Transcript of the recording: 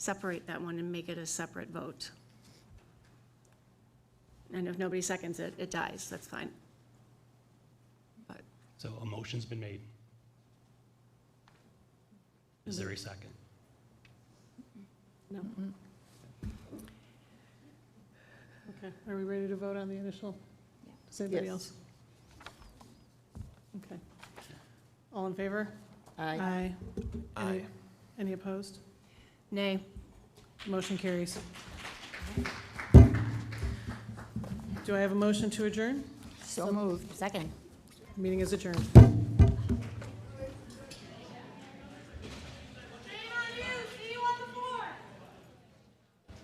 separate that one and make it a separate vote. And if nobody seconds it, it dies, that's fine. But So a motion's been made. Is there a second? No. Okay, are we ready to vote on the initial? Does anybody Yes. else? Okay. All in favor? Aye. Aye. Aye. Any opposed? Nay. Motion carries. Do I have a motion to adjourn? So moved. Second. Meeting is adjourned.